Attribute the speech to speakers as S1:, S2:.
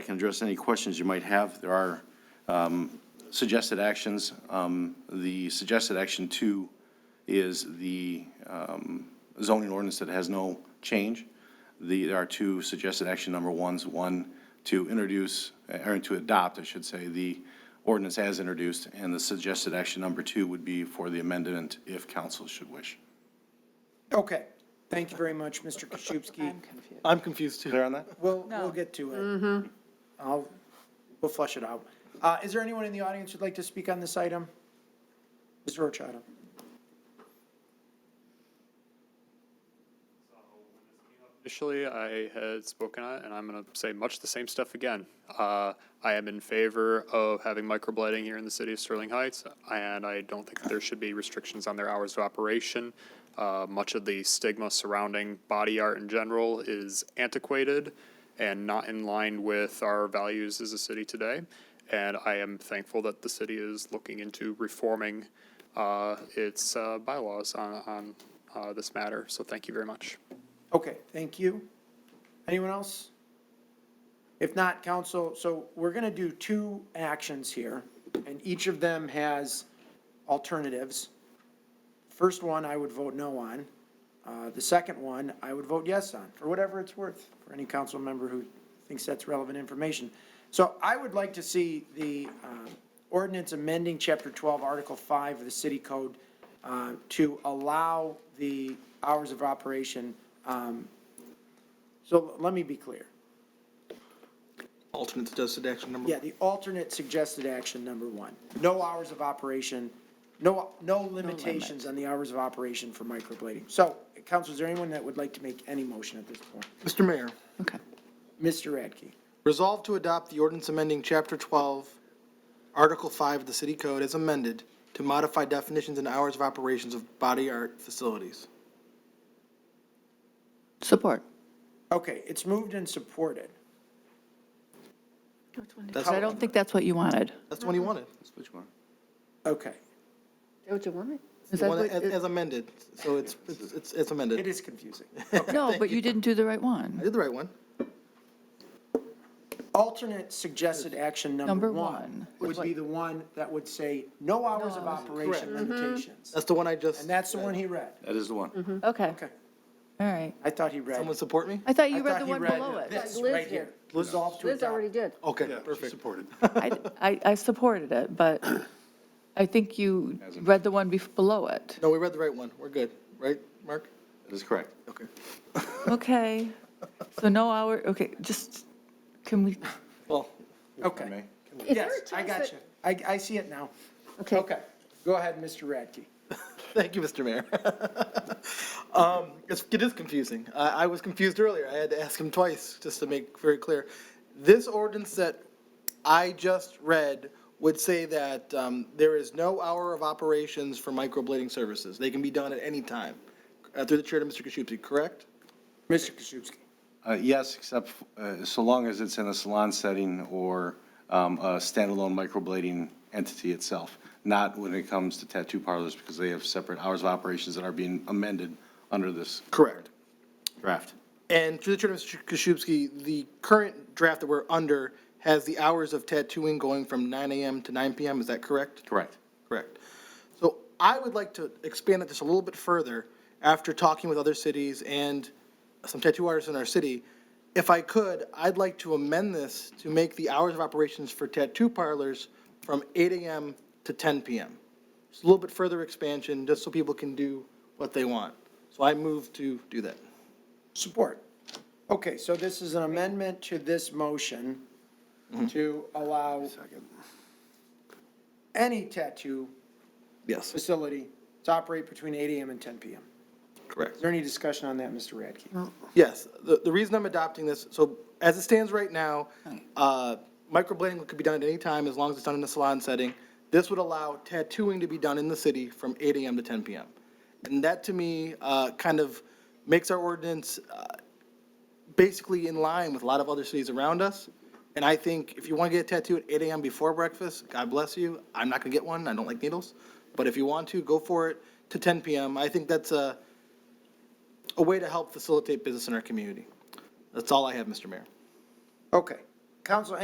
S1: I can address any questions you might have. There are um, suggested actions. Um, The suggested action two is the um, zoning ordinance that has no change. The, there are two suggested action number ones. One, to introduce, uh, or to adopt, I should say, the ordinance as introduced, and the suggested action number two would be for the amendment if council should wish.
S2: Okay, thank you very much, Mr. Kaschubski.
S3: I'm confused.
S4: I'm confused too.
S1: Clear on that?
S2: We'll,
S3: No.
S2: we'll get to it. I'll, we'll flush it out. Uh, is there anyone in the audience who'd like to speak on this item? Ms. Rochada?
S5: Initially, I had spoken on it, and I'm going to say much the same stuff again. Uh, I am in favor of having microblading here in the city of Sterling Heights, and I don't think that there should be restrictions on their hours of operation. Uh, much of the stigma surrounding body art in general is antiquated and not in line with our values as a city today. And I am thankful that the city is looking into reforming uh, its uh, bylaws on, on uh, this matter. So thank you very much.
S2: Okay, thank you. Anyone else? If not, council, so we're going to do two actions here, and each of them has alternatives. First one, I would vote no on. Uh, The second one, I would vote yes on, for whatever it's worth, for any council member who thinks that's relevant information. So I would like to see the um, ordinance amending Chapter 12, Article 5 of the City Code uh, to allow the hours of operation. um, So let me be clear.
S4: Alternate suggested action number.
S2: Yeah, the alternate suggested action, number one. No hours of operation, no, no limitations on the hours of operation for microblading. So, council, is there anyone that would like to make any motion at this point?
S4: Mr. Mayor,
S3: Okay.
S2: Mr. Radke,
S4: resolve to adopt the ordinance amending Chapter 12, Article 5 of the City Code as amended to modify definitions and hours of operations of body art facilities.
S3: Support.
S2: okay, it's moved and supported.
S4: That's
S3: I don't think that's what you wanted.
S4: That's the one
S2: Mm-hmm.
S4: you wanted.
S1: That's what you want.
S2: Okay,
S6: Don't you want it?
S3: Is
S4: The
S3: that
S4: one
S3: what-
S4: as as amended, so it's, it's- it's it's amended.
S2: it is confusing.
S3: No, but you didn't do the right
S4: I
S3: one.
S4: did the right one.
S2: Alternate suggested action number
S3: Number
S2: one
S3: one.
S2: would be the one that would say no hours of operation limitations.
S4: That's the one I just,
S2: And that's the one he read.
S1: That is the
S4: Mm-hmm.
S1: one.
S3: Okay.
S2: Okay,
S3: All right.
S2: I thought he read.
S4: someone support me?
S3: I thought
S2: I
S3: you read
S2: thought
S3: the
S2: he
S3: one below it.
S2: This,
S6: Liz
S2: right
S6: did.
S2: here, resolve to
S6: Liz
S2: adopt.
S6: already did.
S4: Okay, perfect.
S3: I, I- I supported it, but I think you read the one bef- below it.
S4: No, we read the right one. We're good, right, Mark?
S1: That is correct.
S4: Okay.
S3: Okay. So no hour, okay, just, can we,
S4: Well,
S2: Okay.
S6: Is there
S2: Oh,
S6: a
S2: Yes, I
S6: chance
S2: got
S6: that-
S2: you. I, I see it now.
S6: Okay,
S2: Okay, go ahead, Mr. Radke.
S4: Thank you, Mr. Mayor. Um, it's- It is confusing. I I was confused earlier. I had to ask him twice, just to make very clear. This ordinance that I just read would say that um, there is no hour of operations for microblading services. They can be done at any time. Uh, Through the chair to Mr. Kaschubski, correct?
S2: Mr. Kaschubski.
S1: Uh, Yes, except uh, so long as it's in a salon setting or um, a standalone microblading entity itself, not when it comes to tattoo parlors, because they have separate hours of operations that are being amended under this
S4: Correct.
S1: draft.
S4: And through the chair to Mr. Kaschubski, the current draft that we're under has the hours of tattooing going from 9 AM to 9 PM, is that correct?
S1: Correct.
S4: Correct. So I would like to expand it just a little bit further after talking with other cities and some tattoo artists in our city. If I could, I'd like to amend this to make the hours of operations for tattoo parlors from 8 AM to 10 PM. Just a little bit further expansion, just so people can do what they want. So I move to do that.
S2: Support. Okay, so this is an amendment to this motion to allow any tattoo
S4: Yes.
S2: facility to operate between 8 AM and 10 PM.
S4: Correct.
S2: Is there any discussion on that, Mr. Radke?
S4: Yes, the, the reason I'm adopting this, so as it stands right now, uh, microblading could be done at any time as long as it's done in a salon setting. This would allow tattooing to be done in the city from 8 AM to 10 PM. And that to me uh, kind of makes our ordinance uh, basically in line with a lot of other cities around us. And I think if you want to get a tattoo at 8 AM before breakfast, God bless you. I'm not going to get one, I don't like needles. But if you want to, go for it to 10 PM. I think that's a, a way to help facilitate business in our community. That's all I have, Mr. Mayor.
S2: Okay, Council,